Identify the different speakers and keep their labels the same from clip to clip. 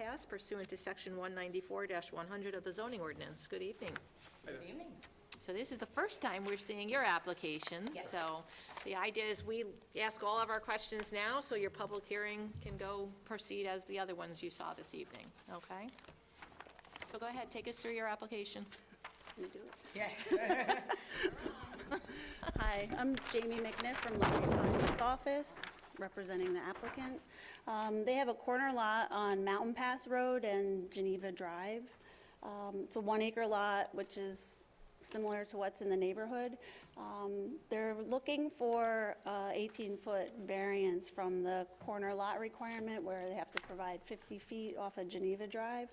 Speaker 1: us pursuant to Section 194-100 of the zoning ordinance. Good evening.
Speaker 2: Good evening.
Speaker 1: So this is the first time we're seeing your application.
Speaker 2: Yes.
Speaker 1: So the idea is we ask all of our questions now, so your public hearing can go proceed as the other ones you saw this evening, okay? So go ahead, take us through your application.
Speaker 2: Yeah.
Speaker 3: Hi, I'm Jamie McNiff from Lowry Consul's office, representing the applicant. Um, They have a corner lot on Mountain Pass Road and Geneva Drive. Um, It's a one-acre lot, which is similar to what's in the neighborhood. Um, They're looking for 18-foot variance from the corner lot requirement, where they have to provide 50 feet off of Geneva Drive.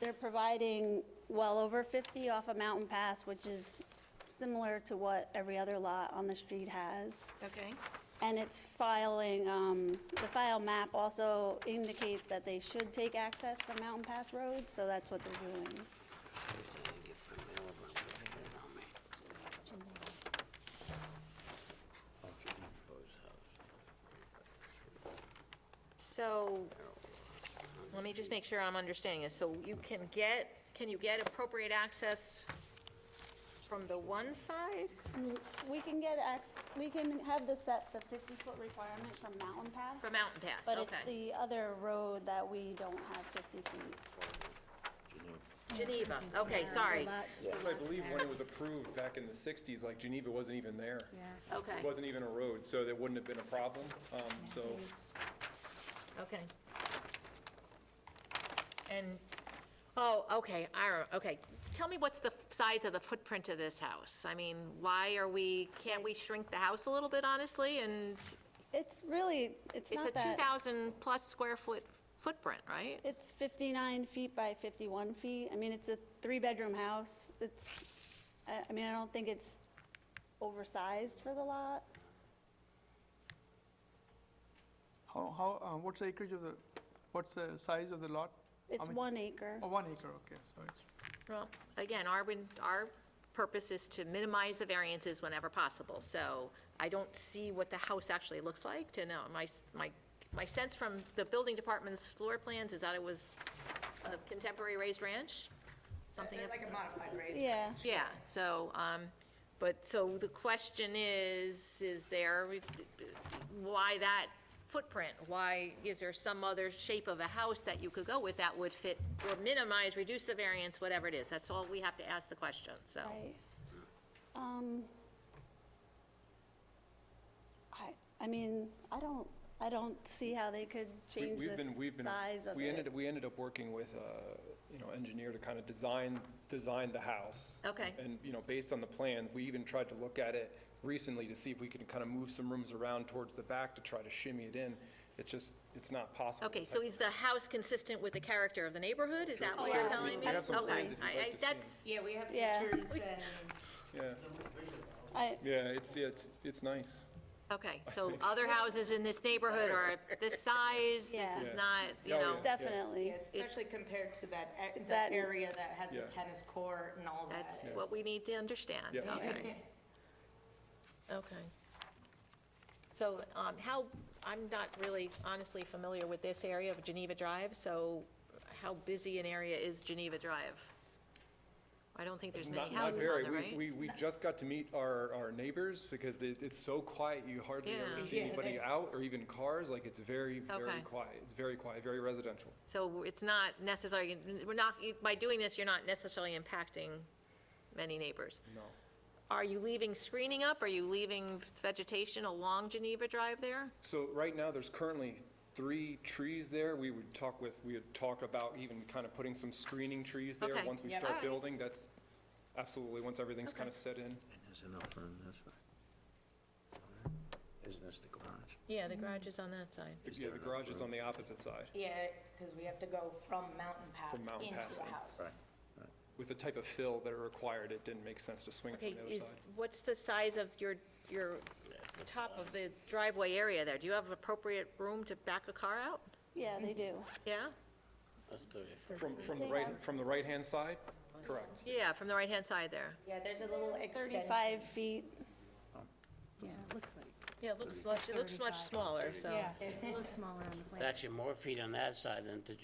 Speaker 3: They're providing well over 50 off a Mountain Pass, which is similar to what every other lot on the street has.
Speaker 1: Okay?
Speaker 3: And it's filing, um, the file map also indicates that they should take access from Mountain Pass Road, so that's what they're doing.
Speaker 1: So, let me just make sure I'm understanding this. So you can get, can you get appropriate access from the one side?
Speaker 3: We can get, ac- we can have the set, the 50-foot requirement from Mountain Pass,
Speaker 1: From Mountain Pass,
Speaker 3: but
Speaker 1: okay.
Speaker 3: it's the other road that we don't have 50 feet.
Speaker 1: Geneva, okay, sorry.
Speaker 2: I
Speaker 4: I believe when it was approved back in the 60s, like Geneva wasn't even there.
Speaker 1: Okay,
Speaker 4: It wasn't even a road, so that wouldn't have been a problem, um, so.
Speaker 1: okay. And, oh, okay, I, re- okay. Tell me what's the f- size of the footprint of this house? I mean, why are we, can't we shrink the house a little bit, honestly? And
Speaker 3: It's really, it's
Speaker 1: it's a
Speaker 3: not that.
Speaker 1: 2,000-plus square foot footprint, right?
Speaker 3: It's 59 feet by 51 feet. I mean, it's a three-bedroom house. It's, I I mean, I don't think it's oversized for the lot.
Speaker 5: How, how, uh, what's the acreage of the, what's the size of the lot? How
Speaker 3: It's
Speaker 5: many-
Speaker 3: one acre.
Speaker 5: Oh, one acre, okay, so it's,
Speaker 1: Well, again, our, win- our purpose is to minimize the variances whenever possible, so I don't see what the house actually looks like to know. My, s- my, my sense from the building department's floor plans is that it was a contemporary raised ranch, something. of-
Speaker 2: Like a modified rate.
Speaker 3: Yeah.
Speaker 1: Yeah, so, um, but, so the question is, is there, why that footprint? Why, is there some other shape of a house that you could go with that would fit, or minimize, reduce the variance, whatever it is? That's all we have to ask the question, so.
Speaker 3: Right. Um, I, I mean, I don't, I don't see how they could
Speaker 4: we-
Speaker 3: change
Speaker 4: we've been- we've
Speaker 3: the
Speaker 4: been-
Speaker 3: size of
Speaker 4: We ended,
Speaker 3: it.
Speaker 4: we ended up working with, uh, you know, engineer to kind of design, design the house.
Speaker 1: Okay.
Speaker 4: And, you know, based on the plans, we even tried to look at it recently to see if we could kind of move some rooms around towards the back to try to shimmy it in. It's just, it's not possible.
Speaker 1: Okay, so is the house consistent with the character of the neighborhood? Is that what you're
Speaker 3: yeah.
Speaker 1: telling me?
Speaker 4: We have some
Speaker 1: Okay,
Speaker 4: plans if you'd
Speaker 1: I-
Speaker 4: like
Speaker 1: I-
Speaker 4: to see 'em.
Speaker 1: That's,
Speaker 2: Yeah, we have
Speaker 3: Yeah.
Speaker 2: pictures and,
Speaker 4: Yeah,
Speaker 3: I,
Speaker 4: yeah, it's, yeah, it's, it's nice.
Speaker 1: okay, so other houses in this neighborhood are this size, this
Speaker 3: Yeah.
Speaker 1: is
Speaker 4: Yeah.
Speaker 1: not, you
Speaker 4: Oh,
Speaker 1: know,
Speaker 4: yeah.
Speaker 3: definitely.
Speaker 2: yeah, especially compared to that, a- that
Speaker 3: That-
Speaker 2: area that has
Speaker 4: Yeah.
Speaker 2: the tennis court and all that.
Speaker 1: that's what we need to understand.
Speaker 4: Yeah.
Speaker 1: Okay. Okay. So um, how, I'm not really honestly familiar with this area of Geneva Drive, so how busy an area is Geneva Drive? I don't think there's
Speaker 4: Not
Speaker 1: many
Speaker 4: not
Speaker 1: houses on
Speaker 4: very.
Speaker 1: there,
Speaker 4: We-
Speaker 1: right?
Speaker 4: We, we just got to meet our, our neighbors because they- it's so quiet, you hardly
Speaker 1: Yeah.
Speaker 4: ever see
Speaker 2: Yeah,
Speaker 4: anybody
Speaker 2: they-
Speaker 4: out or even cars, like it's very,
Speaker 1: Okay.
Speaker 4: very quiet. It's very quiet, very residential.
Speaker 1: So it's not necessarily, we're not, by doing this, you're not necessarily impacting many neighbors.
Speaker 4: No.
Speaker 1: Are you leaving screening up? Are you leaving vegetation along Geneva Drive there?
Speaker 4: So right now, there's currently three trees there. We would talk with, we would talk about even kind of putting some screening trees there
Speaker 1: Okay.
Speaker 4: once we
Speaker 1: Yeah.
Speaker 4: start
Speaker 1: Alright.
Speaker 4: building. That's absolutely, once everything's
Speaker 1: Okay.
Speaker 4: kind of set in.
Speaker 6: There's enough room this way. Isn't this the garage?
Speaker 1: Yeah, the garage is on that side.
Speaker 4: Yeah, the garage is on the opposite side
Speaker 2: Yeah, because we have to go from Mountain Pass
Speaker 4: From Mountain
Speaker 2: into
Speaker 4: Pass
Speaker 2: the
Speaker 4: in.
Speaker 2: house.
Speaker 6: Right.
Speaker 4: with the type of fill that are required. It didn't make sense to swing it
Speaker 1: Okay,
Speaker 4: from the other
Speaker 1: is,
Speaker 4: side.
Speaker 1: what's the size of your, your top of the driveway area there? Do you have appropriate room to back a car out?
Speaker 3: Yeah, they do.
Speaker 1: Yeah?
Speaker 4: From, from the
Speaker 3: They
Speaker 4: right,
Speaker 3: have-
Speaker 4: from the right-hand side? Correct.
Speaker 1: Yeah, from the right-hand side there.
Speaker 2: Yeah, there's a little extension.
Speaker 3: 35 feet.
Speaker 7: Yeah, it looks like,
Speaker 1: Yeah, it looks much, it looks much smaller, so.
Speaker 7: it looks smaller on the plan.
Speaker 6: Actually, more feet on that side than to